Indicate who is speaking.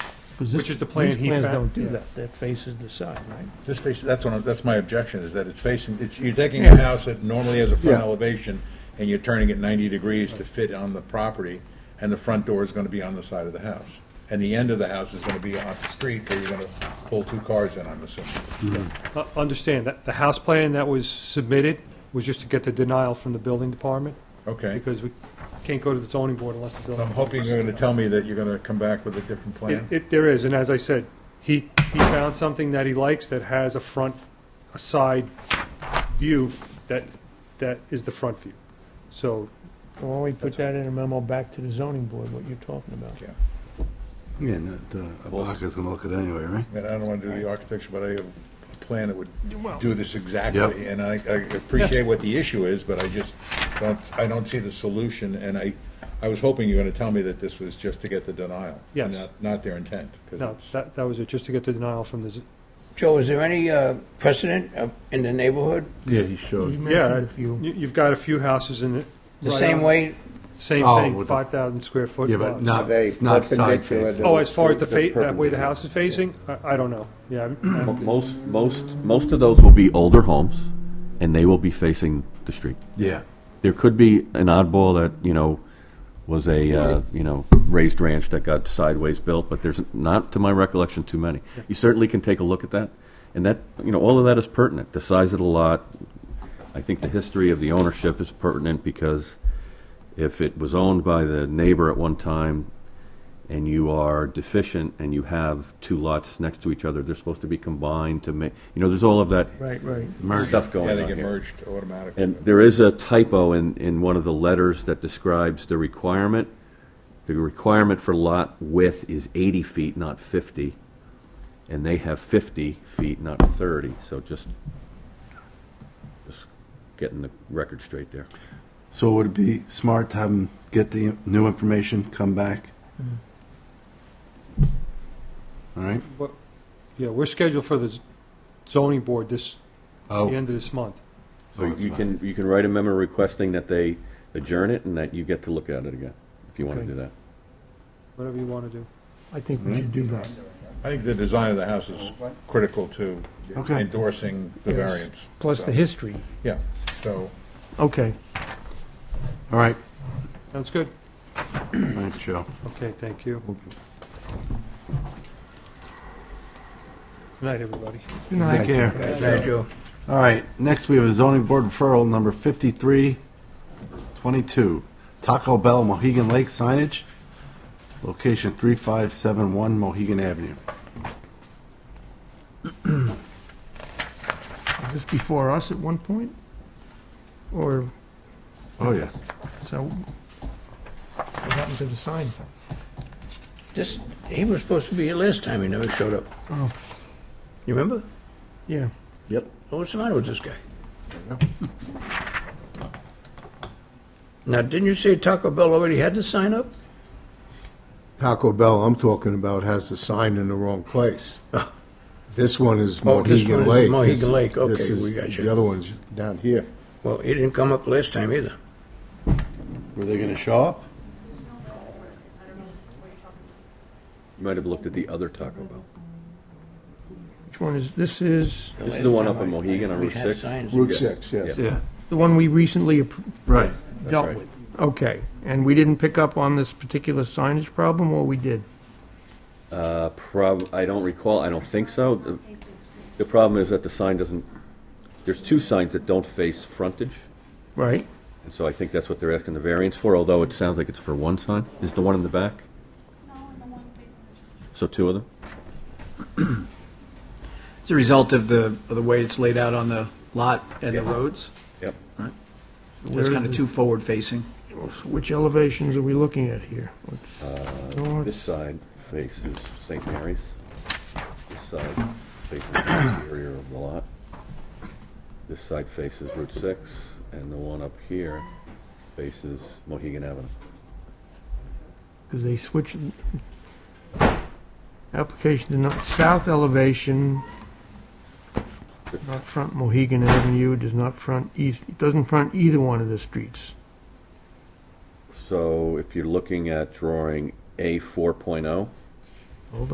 Speaker 1: 'cause
Speaker 2: Which
Speaker 1: this-
Speaker 2: is the plan he
Speaker 1: These plans
Speaker 2: fa-
Speaker 1: don't do
Speaker 2: yeah.
Speaker 1: that, that faces the side, right?
Speaker 3: This face, that's one, of- that's my objection, is that it's facing, it's, you're taking a house that normally has a front
Speaker 4: Yeah.
Speaker 3: elevation, and you're turning it ninety degrees to fit on the property, and the front door is gonna be on the side of the house. And the end of the house is gonna be off the street, where you're gonna pull two cars in, I'm assuming.
Speaker 2: Uh, Understand, that the house plan that was submitted was just to get the denial from the building department,
Speaker 3: Okay.
Speaker 2: because we can't go to the zoning board unless the
Speaker 3: So
Speaker 2: building.
Speaker 3: I'm hoping you're gonna tell me that you're gonna come back with a different plan.
Speaker 2: It, it, there is, and as I said, he, he found something that he likes that has a front, a side view f- that, that is the front view. So,
Speaker 1: Why don't we put that in a memo back to the zoning board, what you're talking about?
Speaker 3: Yeah.
Speaker 4: Yeah, and that, uh, Abacus gonna look at it anyway, right?
Speaker 3: I mean, I don't wanna do the architecture, but I have a plan that would do this exactly,
Speaker 4: Yep.
Speaker 3: and I, I appreciate what the issue is, but I just don't, I don't see the solution, and I, I was hoping you were gonna tell me that this was just to get the denial. and
Speaker 2: Yes.
Speaker 3: not- Not their intent. 'cause
Speaker 2: no,
Speaker 3: it's-
Speaker 2: that, that was it, just to get the denial from the, z-
Speaker 5: Joe, is there any uh, precedent uh, in the neighborhood?
Speaker 4: Yeah, he
Speaker 1: You
Speaker 4: showed.
Speaker 1: mentioned
Speaker 2: I-
Speaker 1: a few.
Speaker 2: you, you've got a few houses in it.
Speaker 5: The
Speaker 2: right
Speaker 5: same
Speaker 2: on-
Speaker 5: way,
Speaker 2: Same
Speaker 4: Oh,
Speaker 2: thing,
Speaker 4: with the-
Speaker 2: five thousand square foot.
Speaker 4: Yeah, but
Speaker 2: lots.
Speaker 4: not,
Speaker 6: they
Speaker 4: it's not side
Speaker 6: perpendicular
Speaker 4: facing.
Speaker 6: to-
Speaker 2: Oh, as far as the
Speaker 6: The
Speaker 2: fa, that way the
Speaker 6: perpendicular.
Speaker 2: house is facing? I, I don't know, yeah. I'm- I'm-
Speaker 7: Most, most, most of those will be older homes, and they will be facing the street.
Speaker 4: Yeah.
Speaker 7: There could be an oddball that, you know, was a, uh, you know, raised ranch that got sideways built, but there's not, to my recollection, too many. You certainly can take a look at that, and that, you know, all of that is pertinent. The size of the lot, I think the history of the ownership is pertinent because if it was owned by the neighbor at one time and you are deficient and you have two lots next to each other, they're supposed to be combined to make, you know, there's all of that
Speaker 1: Right, right.
Speaker 7: stuff going
Speaker 3: Yeah,
Speaker 7: on
Speaker 3: they get
Speaker 7: here.
Speaker 3: merged automatically.
Speaker 7: And there is a typo in, in one of the letters that describes the requirement. The requirement for lot width is 80 feet, not 50, and they have 50 feet, not 30, so just, just getting the record straight there.
Speaker 4: So would it be smart to have them get the new information, come back? Mm-hmm. All right?
Speaker 2: But, yeah, we're scheduled for the z- zoning board this, the
Speaker 4: Oh,
Speaker 2: end of this month.
Speaker 7: So
Speaker 4: that's
Speaker 7: you
Speaker 4: fine.
Speaker 7: can, you can write a memo requesting that they adjourn it and that you get to look at it again, if you want to
Speaker 1: Okay.
Speaker 7: do that.
Speaker 2: Whatever you want to do.
Speaker 1: I think we should do that.
Speaker 3: I think the design of the house is critical to
Speaker 4: Okay.
Speaker 3: endorsing the
Speaker 1: Yes.
Speaker 3: variance.
Speaker 1: Plus the
Speaker 3: So,
Speaker 1: history.
Speaker 3: Yeah, so,
Speaker 1: Okay.
Speaker 4: all right.
Speaker 2: Sounds good?
Speaker 4: Thanks, Joe.
Speaker 2: Okay, thank you. Good night, everybody.
Speaker 4: Take care.
Speaker 5: Joe.
Speaker 4: All right, next we have a zoning board referral number 5322, Taco Bell Mohegan Lake signage, location 3571 Mohegan Avenue.
Speaker 1: Was this before us at one point? Or,
Speaker 4: Oh, yes.
Speaker 1: so, what happened to the sign?
Speaker 5: This, he was supposed to be here last time, he never showed up.
Speaker 1: Oh.
Speaker 5: You remember?
Speaker 1: Yeah.
Speaker 4: Yep.
Speaker 5: What's the matter with this guy? Now, didn't you say Taco Bell already had the sign up?
Speaker 6: Taco Bell I'm talking about has the sign in the wrong place. This one is
Speaker 5: Oh, this one
Speaker 6: Mohegan
Speaker 5: is
Speaker 6: Lake.
Speaker 5: Mohegan
Speaker 6: This-
Speaker 5: Lake.
Speaker 6: this
Speaker 5: Okay,
Speaker 6: is-
Speaker 5: we got you.
Speaker 6: The other one's down here.
Speaker 5: Well, he didn't come up last time either.
Speaker 4: Were they going to show up?
Speaker 7: You might have looked at the other Taco Bell.
Speaker 1: Which one is, this is
Speaker 7: This
Speaker 5: last
Speaker 7: is the one
Speaker 5: time
Speaker 7: up in
Speaker 5: I-
Speaker 7: Mohegan on
Speaker 5: we
Speaker 7: Route
Speaker 5: had
Speaker 7: 6.
Speaker 5: signs.
Speaker 6: Route
Speaker 7: Yeah.
Speaker 6: 6, yes.
Speaker 7: Yeah.
Speaker 4: Yeah,
Speaker 1: the one we recently appro-
Speaker 4: right.
Speaker 1: dealt
Speaker 7: right.
Speaker 1: with. Okay, and we didn't pick up on this particular signage problem, or we did?
Speaker 7: Uh, prob, I don't recall, I don't think so. The- The problem is that the sign doesn't, there's two signs that don't face frontage,
Speaker 1: Right?
Speaker 7: and so I think that's what they're asking the variance for, although it sounds like it's for one sign. Is it the one in the back? So two of them?
Speaker 8: It's a result of the, of the way it's laid out on the lot and the roads.
Speaker 7: Yep.
Speaker 1: Where
Speaker 8: It's
Speaker 1: is
Speaker 8: kind of
Speaker 1: it?
Speaker 8: too forward-facing.
Speaker 1: Which elevations are we looking at here? Let's- north-
Speaker 7: Uh, This side faces St. Mary's. This side faces the interior of the lot. This side faces Route 6, and the one up here faces Mohegan Avenue.
Speaker 1: Because they switched, application to not, south elevation, not front Mohegan Avenue, does not front east, doesn't front either one of the streets.
Speaker 7: So if you're looking at drawing A 4.0,